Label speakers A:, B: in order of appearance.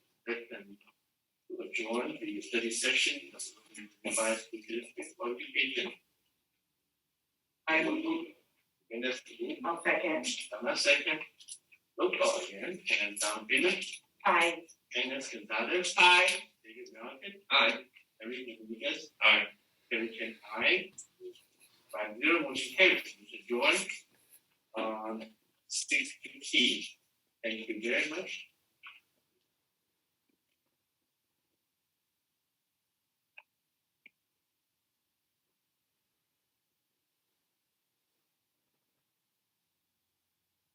A: adjourn the study session. Advise the group before we begin.
B: I will move.
A: Minutes to move.
B: I'll second.
A: I'm a second. Roll call again, and Tom Bennett,
B: Aye.
A: Angus Gonzalez.
B: Aye.
A: David Malcolm. Aye. Irene Rodriguez. Aye. Terry Chen, aye. Five zero, motion carries, Mr. Joy. On six P. Thank you very much.